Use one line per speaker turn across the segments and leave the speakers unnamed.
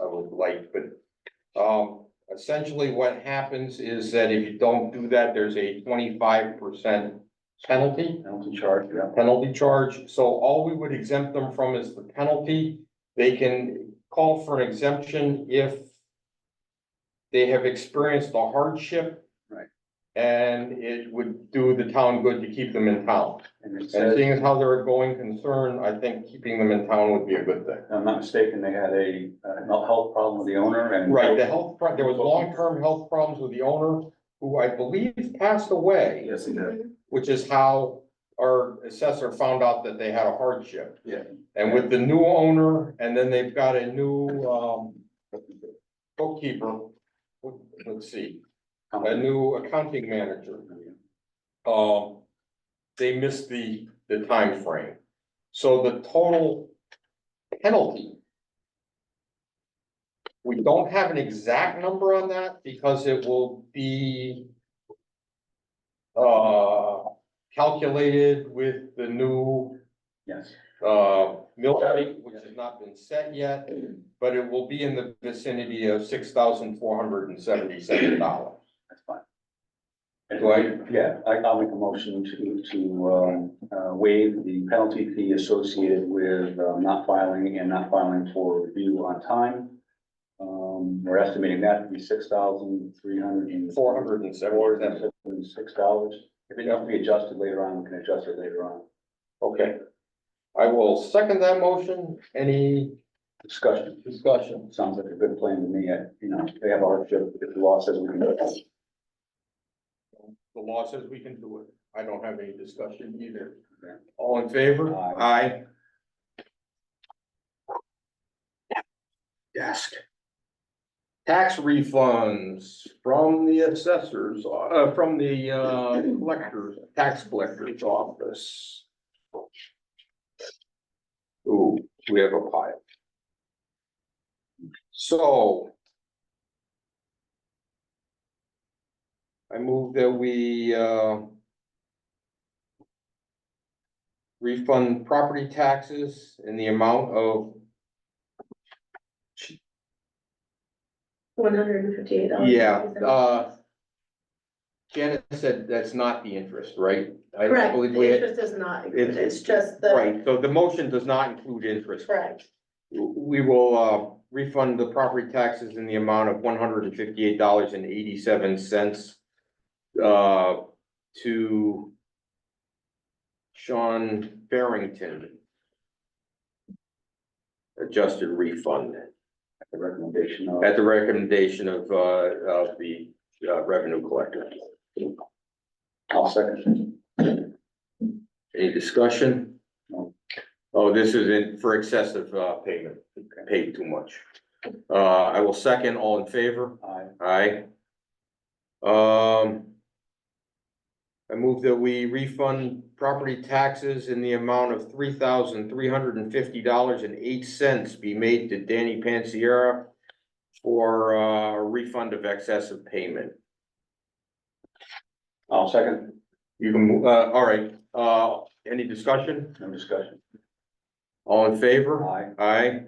little late, but um, essentially what happens is that if you don't do that, there's a twenty-five percent penalty.
Penalty charge, yeah.
penalty charge, so all we would exempt them from is the penalty. They can call for an exemption if they have experienced a hardship.
Right.
And it would do the town good to keep them in town.
And it
And
says, if
seeing as how they're a going concern, I think keeping them in town would be a good thing.
I'm not mistaken, they had a, uh, mental health problem with the owner and.
Right, the health, pro- there was long-term health problems with the owner, who I believe passed away,
Yes, he did.
which is how our assessor found out that they had a hardship.
Yeah.
And with the new owner, and then they've got a new, um, bookkeeper, let's see, a new accounting manager. Um, they missed the, the timeframe. So the total penalty. We don't have an exact number on that because it will be uh, calculated with the new
Yes,
uh, mill rate, which has not been set yet, but it will be in the vicinity of six thousand four hundred and seventy-seven dollars.
that's fine.
Do I-
Yeah, I, I'll make a motion to, to, um, uh, waive the penalty fee associated with, uh, not filing and not filing for review on time. Um, we're estimating that to be six thousand three hundred and.
Four hundred and seventy-seven,
Six dollars. If it has to be adjusted later on, we can adjust it later on.
okay. I will second that motion. Any
Discussion.
discussion?
Sounds like a good plan to me. I- You know, they have a hardship. If the law says we can do it.
The law says we can do it. I don't have any discussion either.
Okay.
All in favor? Aye.
Yes.
Tax refunds from the assessors, uh, from the, uh, collectors, tax collector's office. Ooh, we have a pile. So. I move that we, uh. Refund property taxes in the amount of,
One hundred and fifty-eight dollars.
yeah, uh. Janet said that's not the interest, right? I don't
Correct, the
believe we had-
interest is not,
It's-
it's just the,
Right, so the motion does not include interest.
correct,
We will uh, refund the property taxes in the amount of one hundred and fifty-eight dollars and eighty-seven cents uh, to Sean Barrington. Adjusted refund
The recommendation of.
at the recommendation of, uh, of the uh, revenue collector.
I'll second.
Any discussion?
No.
Oh, this is in, for excessive, uh, payment, paid too much. Uh, I will second, all in favor?
Aye.
Aye. Um. I move that we refund property taxes in the amount of three thousand three hundred and fifty dollars and eight cents be made to Danny Pansiera for, uh, refund of excessive payment.
I'll second.
You can, mo- uh, all right, uh, any discussion?
No discussion.
All in favor?
Aye.
Aye.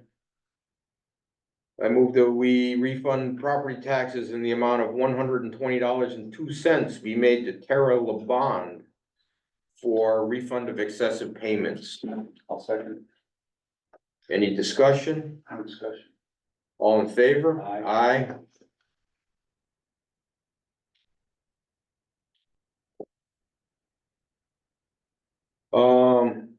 I move that we refund property taxes in the amount of one hundred and twenty dollars and two cents be made to Tara Lebon for refund of excessive payments.
I'll second.
Any discussion?
No discussion.
All in favor?
Aye.
Aye. Um.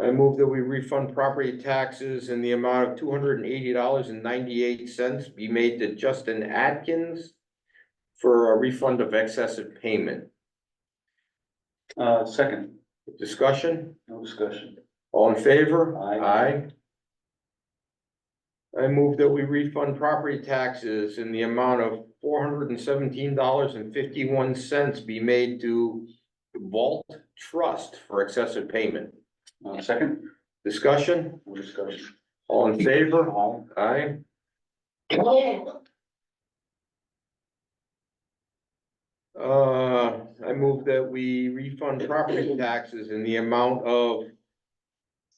I move that we refund property taxes in the amount of two hundred and eighty dollars and ninety-eight cents be made to Justin Atkins. For a refund of excessive payment.
Uh, second.
Discussion?
No discussion.
All in favor?
Aye.
Aye. I move that we refund property taxes in the amount of four hundred and seventeen dollars and fifty-one cents be made to Vault Trust for excessive payment.
Uh, second.
Discussion?
No discussion.
All in favor?
Aye.
Aye. Uh, I move that we refund property taxes in the amount of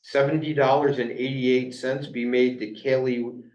seventy dollars and eighty-eight cents be made to Kelly